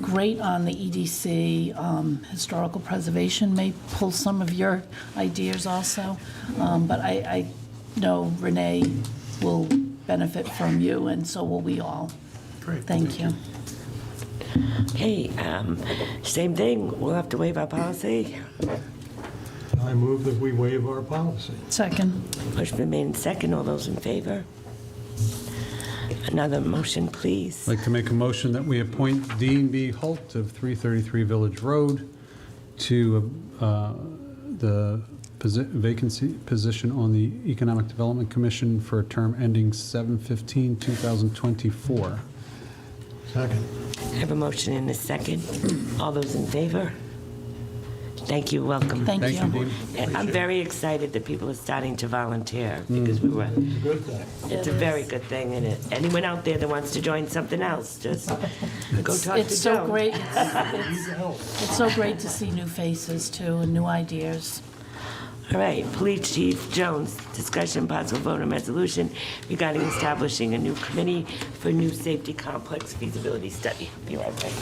great on the EDC. Um, Historical preservation may pull some of your ideas also. Um, But I, I know Renee will benefit from you, and so will we all. Great. Thank you. Hey, um, same thing, we'll have to waive our policy. I move that we waive our policy. Second. Motion been made in second, all those in favor? Another motion, please. I'd like to make a motion that we appoint Dean B. Holt of 333 Village Road to uh, the posi- vacancy position on the Economic Development Commission for a term ending 7/15/2024. Second. I have a motion in a second, all those in favor? Thank you, welcome. Thank Thank you, Dean. I'm very excited that people are starting to volunteer, because we were, Mm-hmm. Good thing. it's a very good thing, and it- anyone out there that wants to join something else, just go talk to Joan. It's so great, it's, it's so great to see new faces too, and new ideas. All right, Police Chief Jones, discussion possible vote on resolution regarding establishing a new committee for new safety complex feasibility study. Be right back.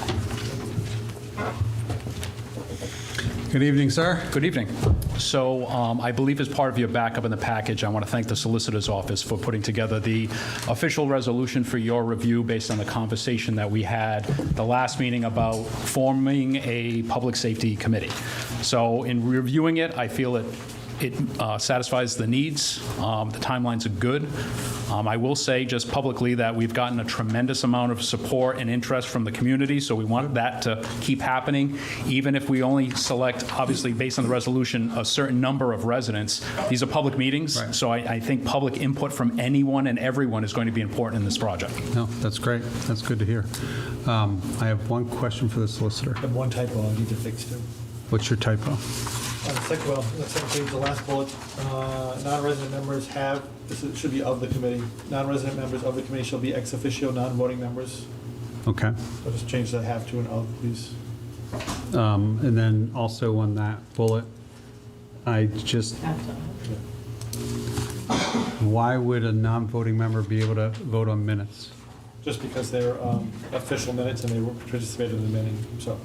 Good evening, sir. Good evening. So um, I believe as part of your backup in the package, I want to thank the Solicitor's Office for putting together the official resolution for your review based on the conversation that we had the last meeting about forming a public safety committee. So in reviewing it, I feel it it uh, satisfies the needs. Um, The timelines are good. Um, I will say just publicly that we've gotten a tremendous amount of support and interest from the community, so we want that to keep happening. Even if we only select, obviously, based on the resolution, a certain number of residents, these are public meetings, Right. so I I think public input from anyone and everyone is going to be important in this project. No, that's great. That's good to hear. Um, I have one question for the solicitor. have one typo I need to fix too. What's your typo? On the second, well, on the second page, the last bullet, uh, non-resident members have, this is- should be of the committee. Non-resident members of the committee shall be ex officio non-voting members. Okay. So just change the have to and of, please. Um, And then also on that bullet, I just, why would a non-voting member be able to vote on minutes? Just because they're um, official minutes and they were- participated in the meeting, so.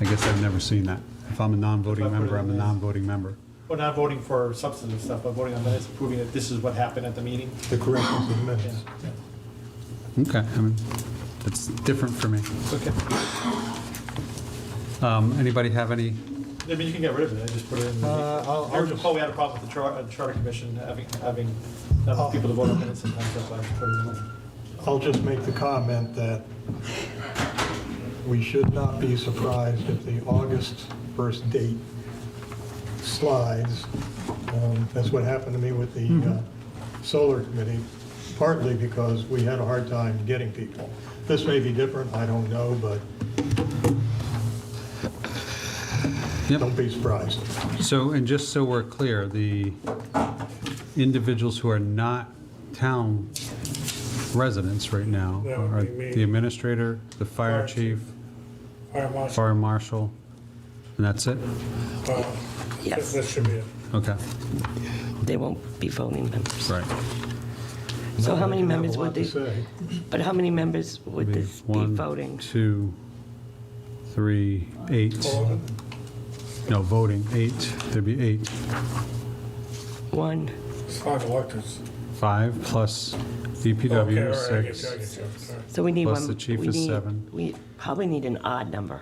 I guess I've never seen that. If I'm a non-voting If I put it member, I'm a in there. non-voting member. Well, not voting for substantive stuff, but voting on minutes, proving that this is what happened at the meeting. The corrections of minutes. Okay, I mean, that's different for me. Okay. Um, Anybody have any, I mean, you can get rid of it, I just put it in. Uh, I'll- I'll I recall we had a problem with the char- uh, Charter Commission having, having not enough people to vote on minutes sometimes, that's why I put it in. there. I'll just make the comment that we should not be surprised if the August first date slides. Um, That's what happened to me with the uh, solar committee, partly because we had a hard time getting people. This may be different, I don't know, but Yep. don't be surprised. so, and just so we're clear, the individuals who are not town residents right now That would are be me. the administrator, the fire Fire chief, chief. Fire marshal, fire marshal, and that's it? uh, Yes. That should be it. Okay, They won't be voting members. right. So how many You have a members lot would to they, say. but how many members would this be One, voting? two, three, eight. No, voting, eight. There'd be eight. One, It's five electors. Five plus DPW is Okay, all right, I get you, I six. get you, I'm sorry. so we need one. Plus the chief we is need- seven. We probably need an odd number.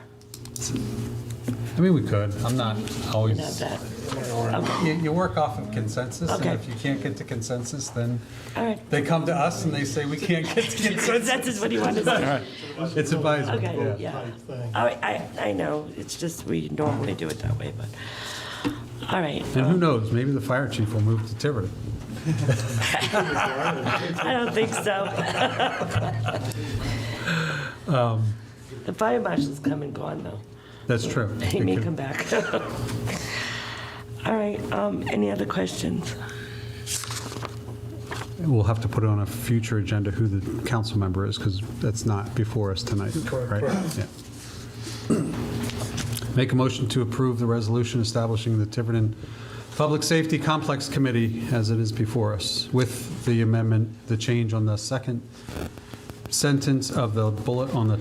I mean, we could. I'm not We have always. that. You, you work off of consensus, and Okay. if you can't get to consensus, then All right. they come to us and they say, we can't get to consensus. That's just what you want to say. It's advisory. Okay, yeah. All right, I, I know, it's just, we normally do it that way, but, all right. And who knows, maybe the fire chief will move to Tiverton. I don't think so. The fire marshal's come and gone, though. That's true. He may come back. All right, um, any other questions? We'll have to put on a future agenda who the council member is, because that's not before us tonight, right? Yeah. Make a motion to approve the resolution establishing the Tiverton Public Safety Complex Committee as it is before us, with the amendment, the change on the second sentence of the bullet on the